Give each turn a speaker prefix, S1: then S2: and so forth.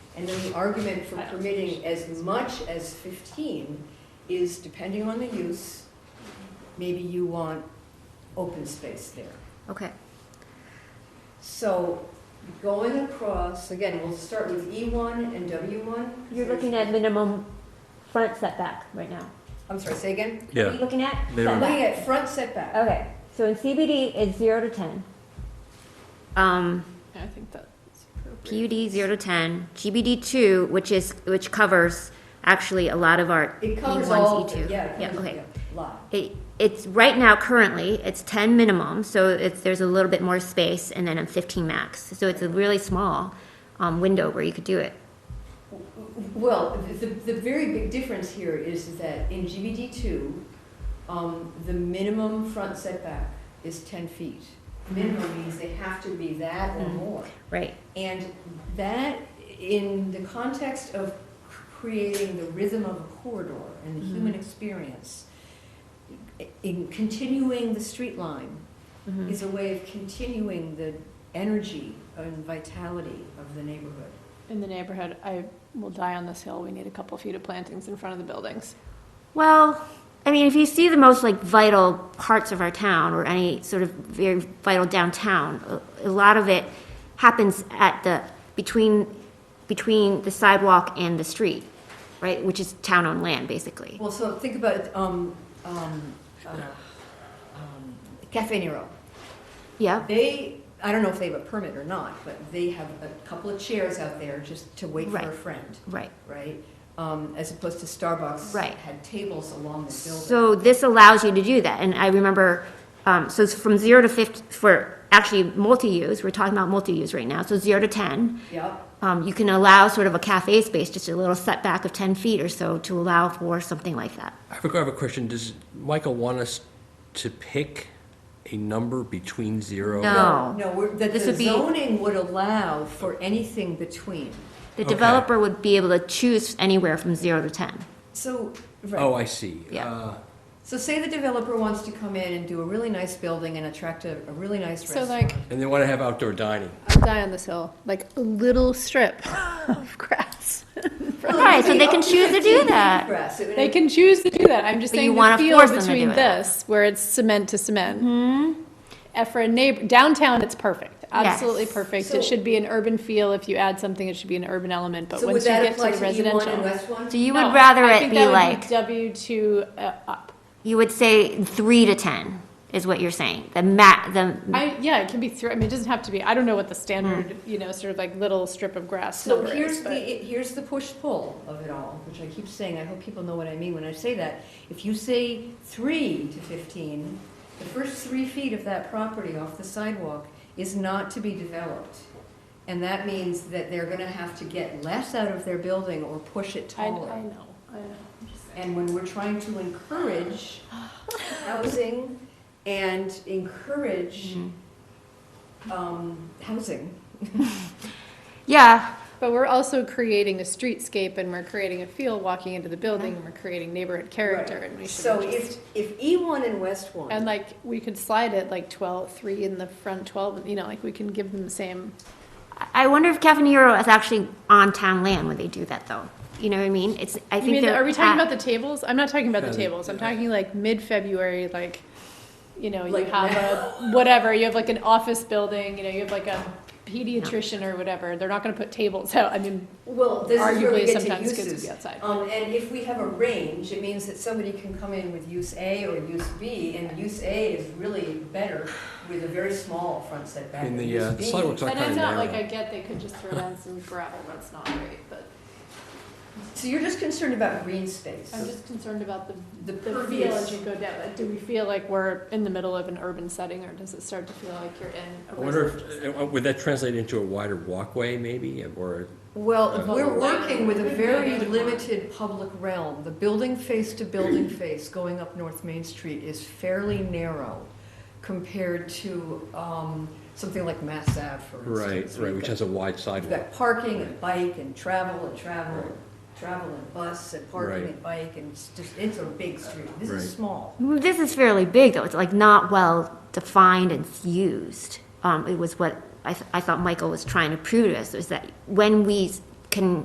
S1: And then the argument for
S2: I don't-
S1: permitting as much as fifteen is depending on the use, maybe you want open space there.
S3: Okay,
S1: So going across, again, we'll start with E one and W one.
S3: you're looking at minimum front setback right now.
S1: I'm sorry, say again?
S3: What are you
S4: Yeah,
S3: looking at?
S4: Minimum.
S3: Setback.
S1: Looking at front setback.
S3: Okay, so in CBD, it's zero to ten. Um,
S2: I think that's appropriate.
S3: PUD zero to ten, GBD two, which is, which covers actually a lot of our E
S1: It covers all,
S3: ones,
S1: of
S3: E two.
S1: it, yeah, it covers,
S3: okay.
S1: yeah, lot.
S3: It, it's, right now, currently, it's ten minimum, so it's, there's a little bit more space, and then a fifteen max. So it's a really small, um, window where you could do it.
S1: Well, the, the very big difference here is that in GBD two, um, the minimum front setback is ten feet. Minimum means they have to be that or
S3: Mm.
S1: more.
S3: Right,
S1: And that, in the context of creating the rhythm of a corridor and the human experience, in continuing the street line
S3: Mhm.
S1: is a way of continuing the energy and vitality of the neighborhood.
S2: In the neighborhood, I will die on this hill, we need a couple feet of plantings in front of the buildings.
S3: Well, I mean, if you see the most like vital parts of our town or any sort of very vital downtown, a, a lot of it happens at the between between the sidewalk and the street, right? Which is town-owned land, basically.
S1: Well, so think about um, um, uh, um, Cafe Nero.
S3: Yeah.
S1: They, I don't know if they have a permit or not, but they have a couple of chairs out there just to wait for a
S3: Right.
S1: friend,
S3: Right.
S1: right? Um, As opposed to Starbucks.
S3: Right.
S1: Had tables along the building.
S3: So this allows you to do that, and I remember, um, so it's from zero to fifty for actually multi-use. We're talking about multi-use right now. So zero to ten.
S1: Yep,
S3: um, you can allow sort of a cafe space, just a little setback of 10 feet or so to allow for something like that.
S4: I have a- I have a question, does Michael want us to pick a number between zero?
S3: No.
S1: no, no, we're- the
S3: This
S1: the
S3: would be-
S1: zoning would allow for anything between.
S3: The
S4: Okay.
S3: developer would be able to choose anywhere from zero to 10.
S1: So,
S4: Oh,
S1: right,
S4: I see.
S3: Yeah.
S4: Uh,
S1: so say the developer wants to come in and do a really nice building and attract a a really nice
S2: So
S1: restaurant.
S2: like,
S4: And they want to have outdoor dining.
S2: I'll die on this hill, like a little strip of grass.
S3: Right, so they can choose to do that.
S1: Grass. It would-
S2: They can choose to do that, I'm just
S3: But you
S2: saying the
S3: wanna
S2: feel
S3: force them to
S2: between
S3: do it.
S2: this, where it's cement to cement. And for a neighbor, downtown, it's perfect, absolutely
S3: Yes.
S2: perfect.
S1: So-
S2: It should be an urban feel, if you add something, it should be an urban element, but
S1: So would
S2: once you
S1: that
S2: get to E
S1: apply
S2: the
S1: E1
S2: residential.
S1: and West One?
S3: So you would
S2: No,
S3: rather
S2: I
S3: it
S2: think
S3: be
S2: that would
S3: like,
S2: W two uh, up.
S3: you would say three to 10 is what you're saying. The mat, the,
S2: I, yeah, it can be three, I mean, it doesn't have to be, I don't know what the standard, you know, sort of like little strip of grass
S1: So
S2: number is,
S1: here's the,
S2: but-
S1: here's the push-pull of it all, which I keep saying, I hope people know what I mean when I say that. If you say three to fifteen, the first three feet of that property off the sidewalk is not to be developed. And that means that they're gonna have to get less out of their building or push it
S2: I, I know,
S1: taller.
S2: I know. I'm just saying.
S1: And when we're trying to encourage housing and encourage,
S2: Mm-hmm.
S1: um, housing,
S3: yeah,
S2: But we're also creating a streetscape and we're creating a feel walking into the building and we're creating neighborhood character
S1: Right.
S2: and we should
S1: So
S2: just.
S1: if, if E1 and West 1.
S2: And like, we could slide it like twelve, three in the front twelve, you know, like we can give them the same,
S3: I wonder if Cafe Nero is actually on town land when they do that, though. You know what I mean? It's, I
S2: I mean,
S3: think they're.
S2: are we talking
S3: at-
S2: about the tables? I'm not talking about the
S4: Yeah,
S2: tables. I'm
S4: yeah.
S2: talking like mid-February, like, you know, you
S1: Like
S2: have a, whatever, you have like an office building, you know, you have like a pediatrician or whatever. They're not gonna put tables out. I mean,
S1: Well, this is where we
S2: arguably
S1: get to
S2: sometimes kids would
S1: uses.
S2: be outside.
S1: Um, and if we have a range, it means that somebody can come in with use A or use B, and use A is really better with a very small front setback.
S4: In
S1: than
S4: the, uh,
S1: use B.
S4: sidewalks are
S2: And I'm
S4: kind
S2: not, like,
S4: of
S2: I
S4: narrow.
S2: get they could just throw down some gravel. That's not great, but
S1: So you're just concerned about green space.
S2: I'm just concerned about the
S1: The
S2: the feel as
S1: pervious,
S2: you go down, like, do we feel like we're in the middle of an urban setting, or does it start to feel like you're in a
S4: I wonder
S2: residential?
S4: if, uh, would that translate into a wider walkway maybe, or?
S1: well,
S4: Uh,
S1: we're working with a very limited public realm. The building face to building face going up North Main Street is fairly narrow compared to, um, something like Mass Ave, for
S4: Right,
S1: instance.
S4: right, which has a wide
S1: You've
S4: sidewalk.
S1: got parking and bike and travel and travel, and
S4: Right.
S1: travel and bus and parking
S4: Right.
S1: and bike and it's just, it's a big street. This
S4: Right.
S1: is small.
S3: This is fairly big, though. It's like not well defined and used. Um, it was what I, th- I thought Michael was trying to prove to us, is that when we s- can